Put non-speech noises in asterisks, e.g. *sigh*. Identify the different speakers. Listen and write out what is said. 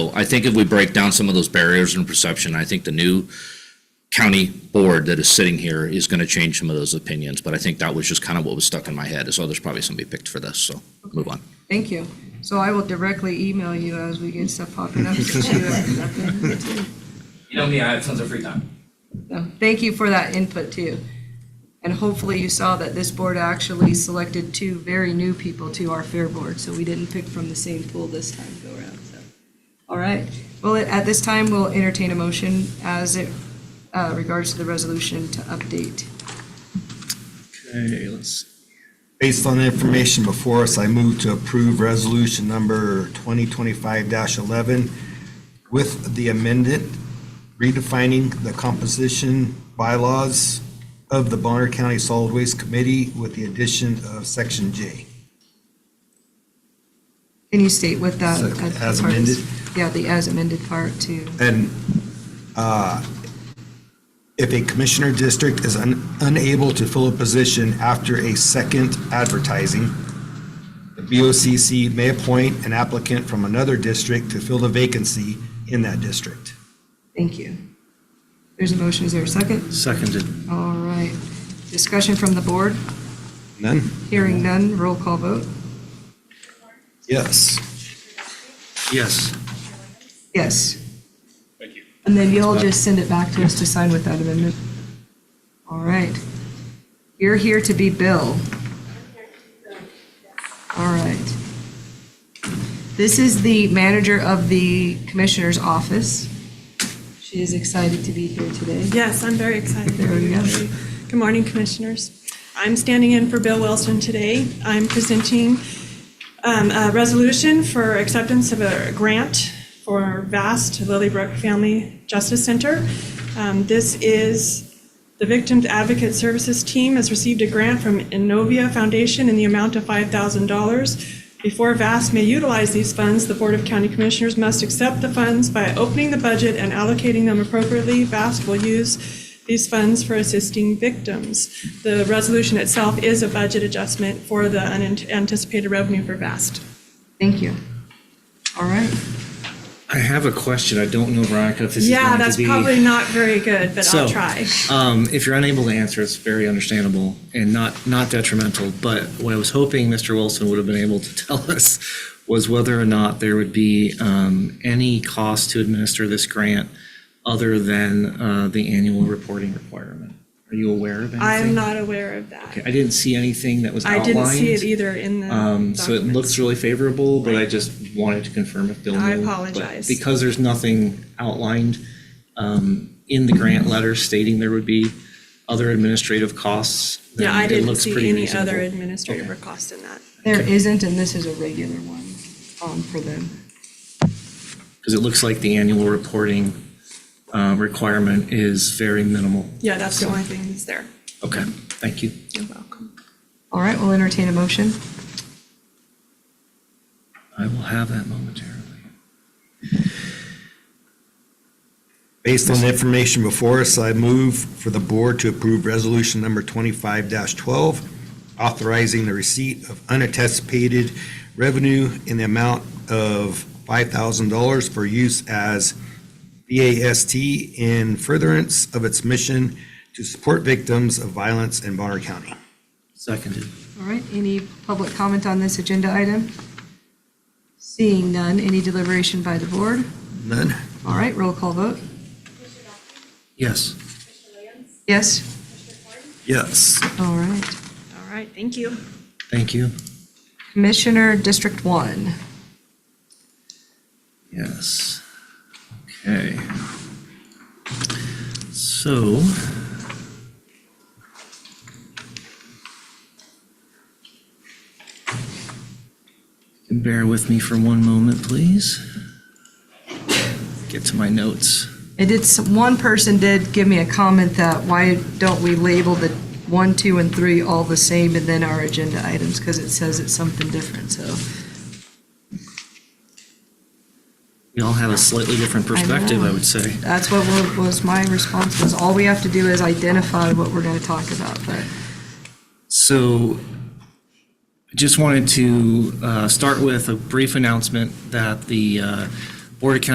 Speaker 1: I think if we break down some of those barriers in perception, I think the new county board that is sitting here is gonna change some of those opinions, but I think that was just kind of what was stuck in my head, is oh, there's probably somebody picked for this, so move on.
Speaker 2: Thank you. So I will directly email you as we get stuff popping
Speaker 3: *laughs*
Speaker 2: up. since you have nothing to do.
Speaker 4: You know me, I have tons of free time.
Speaker 2: So, Thank you for that input too. And hopefully you saw that this board actually selected two very new people to our fair board, so we didn't pick from the same pool this time go around, so. All right, well, at this time, we'll entertain a motion as it uh, regards to the resolution to update.
Speaker 5: Okay, let's,
Speaker 3: Based on the information before us, I move to approve resolution number 2025-11 with the amended redefining the composition bylaws of the Bonner County Solid Waste Committee with the addition of section J.
Speaker 2: Can you state what that?
Speaker 3: So,
Speaker 2: that
Speaker 3: as
Speaker 2: part is?
Speaker 3: amended?
Speaker 2: Yeah, the as amended part too.
Speaker 3: And uh, if a commissioner district is un- unable to fill a position after a second advertising, the BOCC may appoint an applicant from another district to fill the vacancy in that district.
Speaker 2: Thank you. There's a motion, is there a second?
Speaker 5: seconded.
Speaker 2: All right. Discussion from the board,
Speaker 3: None?
Speaker 2: hearing none, roll call vote.
Speaker 3: Yes.
Speaker 5: Yes,
Speaker 2: Yes. Thank you. And then you'll just send it back to us to sign with that amendment? All right. You're here to be Bill. All right. This is the manager of the commissioner's office. She is excited to be here today.
Speaker 6: Yes, I'm very excited.
Speaker 2: There we go.
Speaker 6: Good morning, Commissioners. I'm standing in for Bill Wilson today. I'm presenting um, a resolution for acceptance of a grant for VAST Lilybrook Family Justice Center. Um, This is, the Victims Advocate Services Team has received a grant from Innovia Foundation in the amount of $5,000. Before VAST may utilize these funds, the Board of County Commissioners must accept the funds by opening the budget and allocating them appropriately. VAST will use these funds for assisting victims. The resolution itself is a budget adjustment for the unanticipated revenue for VAST.
Speaker 2: Thank you. All right.
Speaker 5: I have a question. I don't know, Veronica, if this is going to be.
Speaker 6: Yeah, that's probably not very good, but
Speaker 5: So-
Speaker 6: I'll try.
Speaker 5: Um, if you're unable to answer, it's very understandable and not, not detrimental. But what I was hoping Mr. Wilson would have been able to *laughs* tell us was whether or not there would be, um, any cost to administer this grant other than, uh, the annual reporting requirement. Are you aware of anything?
Speaker 6: I'm not aware of
Speaker 5: Okay,
Speaker 6: that.
Speaker 5: I didn't see anything that was
Speaker 6: I
Speaker 5: outlined.
Speaker 6: didn't see it either in the
Speaker 5: Um, so it looks
Speaker 6: documents.
Speaker 5: really favorable, but I just wanted to confirm if Bill knew.
Speaker 6: I
Speaker 5: But
Speaker 6: apologize.
Speaker 5: Because there's nothing outlined, um, in the grant letter stating there would be other administrative costs. then
Speaker 6: Yeah, I
Speaker 5: it
Speaker 6: didn't
Speaker 5: looks pretty
Speaker 6: see any other
Speaker 5: reasonable.
Speaker 6: administrative
Speaker 5: Okay.
Speaker 6: costs in that.
Speaker 2: There isn't, and this is a regular one um, for them.
Speaker 5: Cause it looks like the annual reporting, uh, requirement is very minimal.
Speaker 6: Yeah, that's the only thing that's there.
Speaker 5: Okay, thank you.
Speaker 6: You're welcome.
Speaker 2: All right, we'll entertain a motion.
Speaker 5: I will have that momentarily.
Speaker 3: Based on the information before us, I move for the board to approve resolution number 25-12, authorizing the receipt of unanticipated revenue in the amount of $5,000 for use as BAST in furtherance of its mission to support victims of violence in Bonner County.
Speaker 5: Seconded.
Speaker 2: All right, any public comment on this agenda item? Seeing none, any deliberation by the board?
Speaker 3: None?
Speaker 2: All right, roll call vote.
Speaker 5: Yes.
Speaker 2: Yes?
Speaker 3: Yes.
Speaker 2: All right.
Speaker 6: All right, thank you.
Speaker 5: Thank you.
Speaker 2: Commissioner District One.
Speaker 5: Yes. Okay. So. Bear with me for one moment, please. Get to my notes.
Speaker 2: It did, s- one person did give me a comment that why don't we label the one, two, and three all the same and then our agenda items? Because it says it's something different, so.
Speaker 5: We all have a slightly different perspective, I would say.
Speaker 2: That's what wa- was my response, was all we have to do is identify what we're going to talk about, but.
Speaker 5: So I just wanted to uh, start with a brief announcement that the uh, Board of County